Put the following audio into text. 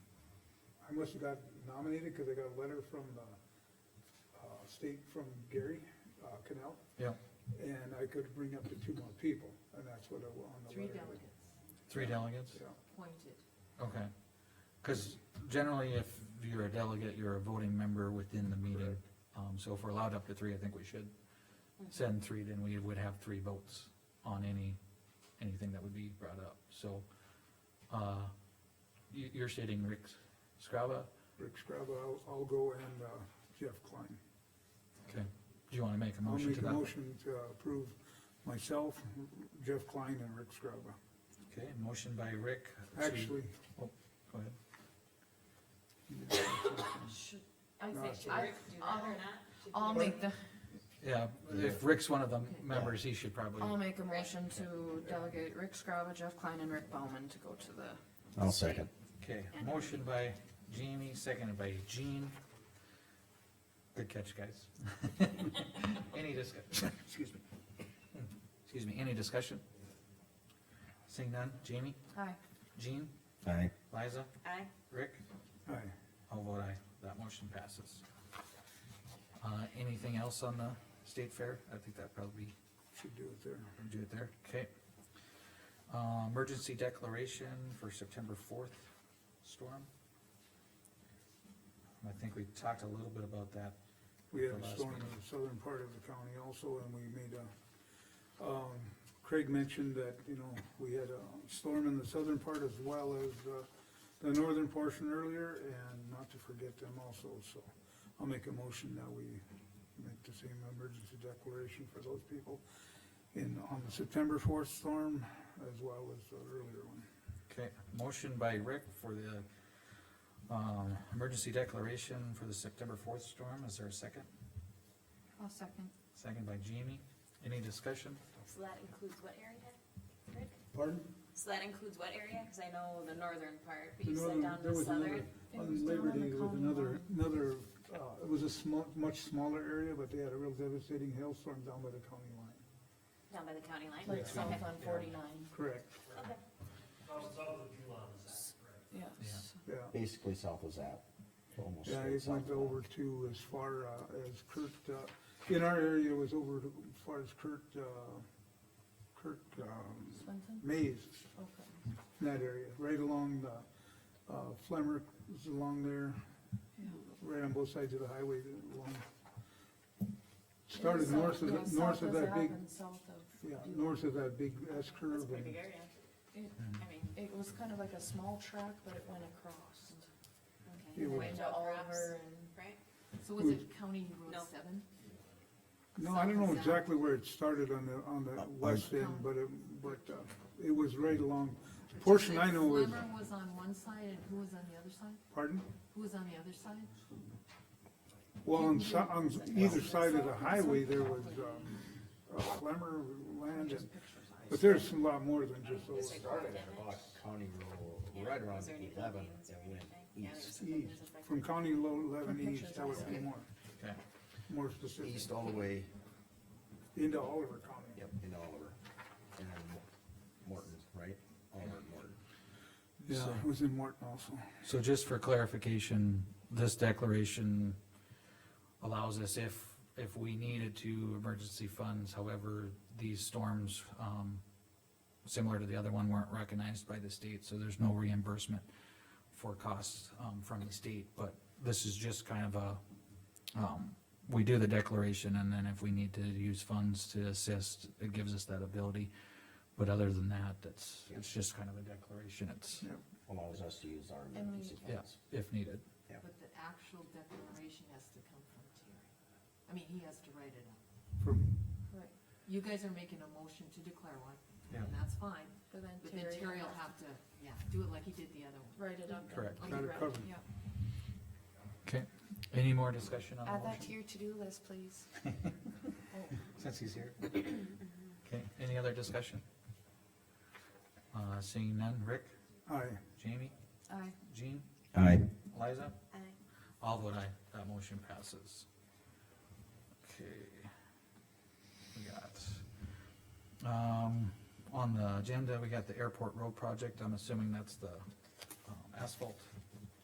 unless you got nominated, cause I got a letter from the, uh, state, from Gary, uh, Canal, Yeah, and I could bring up to two more people, and that's what I, on the letter. Three was. delegates three delegates, Yeah. appointed. okay. Cause generally, if you're a delegate, you're a voting member within the meeting. Um, so if we're allowed up to three, I think we should Mm-hmm. send three, then we would have three votes on any, anything that would be brought up, so. Uh, you, you're stating Rick Scrava, Rick Scrabble, I'll, I'll go and, uh, Jeff Klein. okay, do you wanna make a I'll motion make to a that? motion to approve myself, Jeff Klein and Rick Scrabble. Okay, motion by Rick. to- Actually, Go ahead. Should, I No, think, should I, I'll, I'll make the, Yeah, if Rick's one of the Okay. members, he should probably. I'll make a motion to delegate Rick Scrava, Jeff Klein, and Rick Bowman to go to the, I'll second. Okay, motion by Jamie, seconded by Jean. Good catch, guys. Any discussion, excuse me. Excuse me, any discussion? Seeing none, Jamie, aye. Jean, Aye. Liza, Aye. Rick, aye, I'll vote aye, that motion passes. Uh, anything else on the state fair? I think that probably should do it there. do it there, okay. Uh, emergency declaration for September fourth storm. I think we talked a little bit about that, We had a The last storm in meeting. the southern part of the county also, and we made a, um, Craig mentioned that, you know, we had a storm in the southern part as well as, uh, the northern portion earlier, and not to forget them also, so I'll make a motion that we make the same emergency declaration for those people in, on the September fourth storm as well as the earlier one. okay, motion by Rick for the, um, emergency declaration for the September fourth storm, is there a second? I'll second. Second by Jamie, any discussion? So that includes what area? Rick? Pardon? So that includes what area? Cause I know the northern part, but The you said northern- down there the was southern. It another- was On Labor down on the Day, there was county another, line. another, uh, it was a small, much smaller area, but they had a real devastating hailstorm down by the county line. Down by the county line? Like Okay. south on forty-nine, Correct, Okay. yes. yeah. Basically south of that, almost. Yeah, straight it south went of over to as far, uh, as Kurt, uh, in our area it was over to, as far as Kurt, uh, Kurt, um, Swinton, Mays, okay. in that area, right along the, uh, Flemmer, is along there, right on both sides of the highway, along. Started South north of, goes the- south north of as that big, and South of. Yeah, north of that big S That's a curve pretty and, big area. It- I mean, It was kind of like a small track, but it went across. okay. It was- Way Into out Oliver across, and. Right? So was it County Road No. seven? no, I don't know exactly where it started on the, on the west end, but it, but, uh, it was right along, the portion I know is, Slimmer was on one side and who was on the other side? pardon? Who was on the other side? Well, on, so- on either side of the highway, there was, um, uh, Clemmer land and, but there's a lot more than just those. Started at about County Road, Yeah. right around Was there any eleven, buildings or and went anything? Yeah, there was east, something, there's East, a break. from County Low eleven east, that would be more, Okay, more specific, east all the way, into Oliver County. yep, in Oliver, and then Morton, right? Oliver, and Morton. Yeah, it was in Morton also. so just for clarification, this declaration allows us if, if we needed to, emergency funds, however, these storms, um, similar to the other one, weren't recognized by the state, so there's no reimbursement for costs, um, from the state, but this is just kind of a, um, we do the declaration, and then if we need to use funds to assist, it gives us that ability. But other than that, that's, it's just kind of a declaration, it's, Yep. Allows us to use our we- emergency yeah, funds. if needed. But the actual declaration has to come from Terry. I mean, he has to write it up. From, Right. You guys are making a motion to declare one, Yeah. and that's fine, But then but then Terry will have to, yeah, do it like he did the other one. Write it up. Correct. Like Got he it read covered. Yeah. Okay, any more discussion on Add the that to motion? your to-do list, please. Since he's here. Okay, any other discussion? Uh, seeing none, Rick, aye. Jamie, Aye. Jean, Aye. Liza, Aye. all vote aye, that motion passes. Okay. We got, um, on the agenda, we got the airport road project, I'm assuming that's the um, asphalt